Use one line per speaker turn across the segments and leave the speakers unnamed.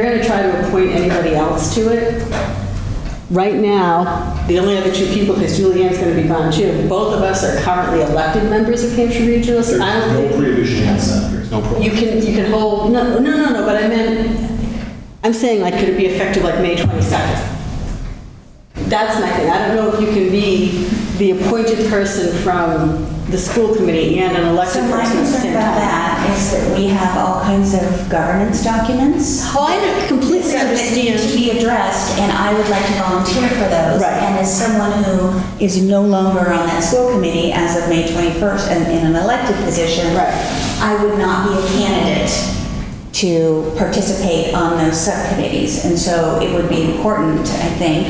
We're gonna try to appoint anybody else to it. Right now, the only other two people, because Julianne's gonna be gone too, both of us are currently elected members of Hampshire Regional. so I don't
There's no
think
prohibition against that, there's no prohibition.
you can, you can hold, no, no, no, no, but I meant, I'm saying like, could it be effective like May 22nd? That's my thing. I don't know if you can be the appointed person from the school committee and an
So
elected
my
person at the
concern
same
about
time.
that is that we have all kinds of governance documents
Oh, I completely
that need to
understand.
be addressed, and I would like to volunteer for those.
Right.
And as someone who is no longer on that school committee as of May 21st and in an elected position,
Right.
I would not be a candidate to participate on those subcommittees. And so it would be important, I think,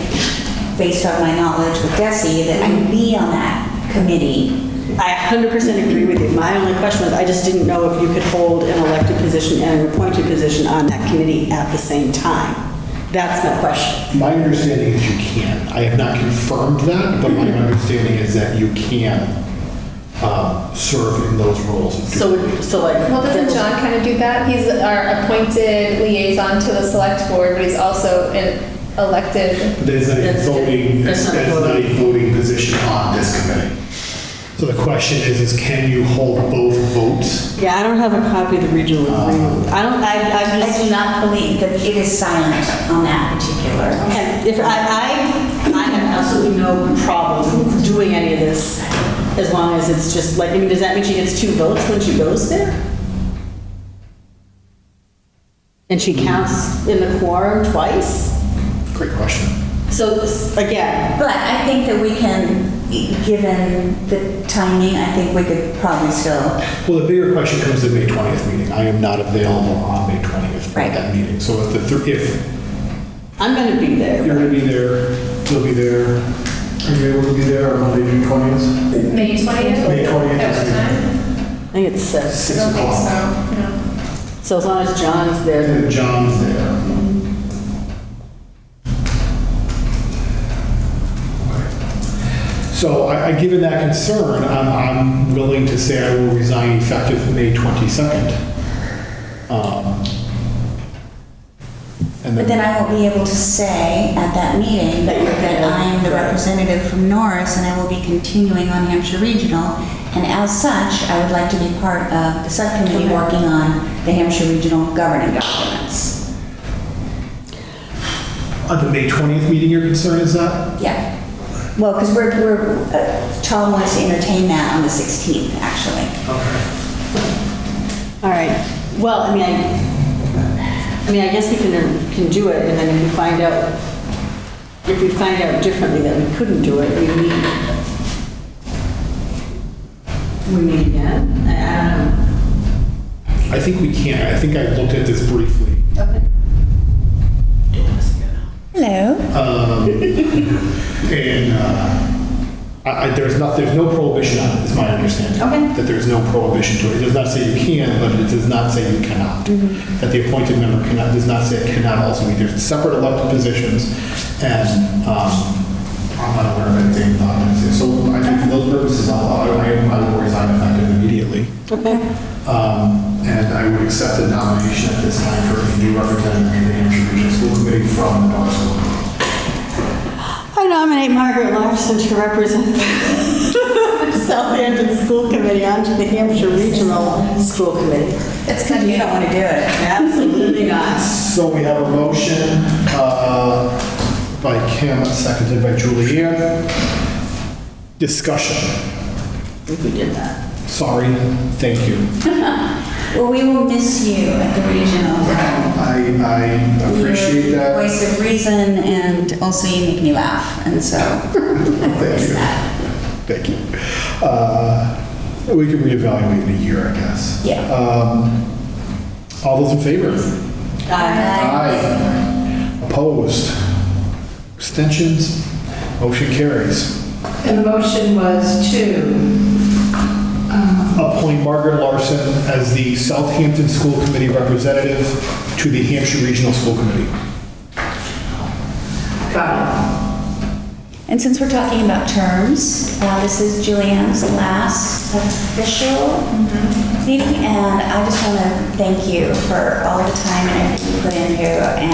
based on my knowledge with Desi, that I be on that committee.
I 100% agree with you. My only question was, I just didn't know if you could hold an elected position and an appointed position on that committee at the same time. That's my question.
My understanding is you can. I have not confirmed that, but my understanding is that you can uh, serve in those roles. and do-
So, so like.
Well, doesn't John kind of do that? He's our appointed liaison to the select board, but he's also an elected.
But There's not a
That's-
voting,
that's
there's
not
not a
voting.
voting position on this committee. So the question is, is can you hold both votes?
Yeah, I don't have a copy of the regional agreement. I don't, I, I'm
I
just.
do not believe that it is silent on that particular.
And If I, I, I have absolutely no problem doing any of this as long as it's just like, I mean, does that mean she gets two votes when she goes there? And she counts in the quorum twice?
Great question.
So this- again,
But I think that we can, given the timing, I think we could probably still,
Well, the bigger question comes to the May 20th meeting. I am not available on May 20th for
Right.
that meeting. So if the, thr- if
I'm gonna be
you're
there.
going to be there, you'll be there. Are you able to be there on Monday, June 20th?
May 20th?
May 20th.
At what time?
I think it's six.
I
Six
don't think
o'clock.
so, no.
So as long as John's there, then-
And John's there. So I, I, given that concern, I'm, I'm willing to say I will resign effective May 22nd. Um, And
but
then.
then I won't be able to say at that meeting that I am the representative from Norris and I will be continuing on Hampshire Regional. And as such, I would like to be part of the subcommittee working on the Hampshire Regional governing documents.
On the May 20th meeting, your concern is that?
Yeah. Well, because we're, we're, uh, Tom wants to entertain that on the 16th, actually.
Okay.
All right, well, I mean, I, I mean, I guess we can, can do it, and then if we find out, if we find out differently that we couldn't do it, we meet. We meet again, I,
I think we can. I think I looked at this briefly.
I don't know.
Hello.
Um, And uh, I, I- there's not, there's no prohibition on it, is my understanding.
Okay.
That there's no prohibition to it. It does not say you can, but it does not say you cannot. That the appointed member cannot, does not say it cannot also be. There's separate elected positions, and um, I'm not aware of anything about it. So I think for those purposes, I'll, I I will resign effective immediately.
Okay,
Um, And I would accept the nomination at this time for a new representative to the Hampshire Regional School Committee from the North School.
I nominate Margaret Larson to represent the Southampton School Committee onto the Hampshire Regional School Committee.
It's because you don't want to do it.
Absolutely not.
So we have a motion uh, by Kim, seconded by Julianne. Discussion.
I think we did that.
Sorry, thank you.
Well, we will miss you at the regional.
I, I appreciate
You're the
that.
Voice of reason, and also you make me laugh, and so.
Thank you. Thank you. Uh, We can reevaluate in a year, I guess.
Yeah.
Um, All those in favor? Aye. Opposed? Abstentions? Motion carries.
And the motion was to, uh,
Appoint Margaret Larson as the Southampton School Committee representative to the Hampshire Regional School Committee.
got it.
And since we're talking about terms, uh, this is Julianne's last official Mm-hmm. meeting, and I just want to thank you for all the time and effort you put in here, and